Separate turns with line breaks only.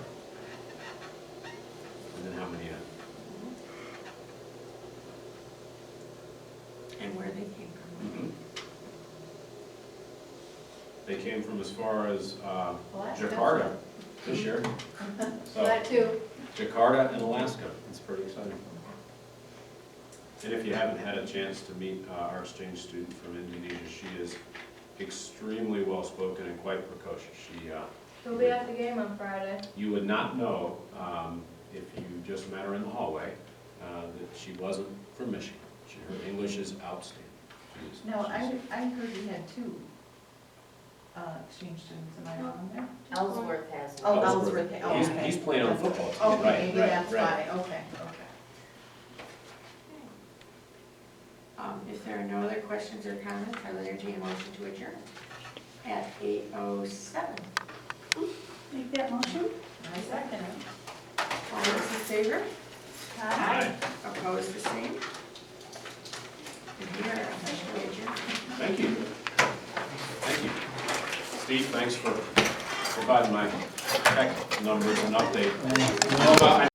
and then how many uh,
And where they came from.
They came from as far as uh,
Well, that's
Jakarta this year. So
That too.
Jakarta and Alaska, it's pretty exciting. And if you haven't had a chance to meet uh, our exchange student from Indonesia, she is extremely well-spoken and quite precocious. She, uh,
He'll be at the game on Friday.
you would not know um, if you just met her in the hallway uh, that she wasn't from Michigan. She- Her English is outstanding. She is-
No, I,
she's-
I heard we had two uh, exchange students, am I wrong there?
Ellsworth has
Oh,
one.
Ellsworth,
Ellsworth.
oh,
He's-
okay.
he's playing on the football team, right,
Okay, maybe
right,
that's
right.
why, okay, okay.
Um, If there are no other questions or comments, I'll entertain a motion to adjourn at 8:07.
Make that motion?
I second it.
All those in favor?
Hi.
Opposed, the same? And we are officially adjourned.
Thank you. Thank you. Steve, thanks for providing my tech numbers and update. Well, I-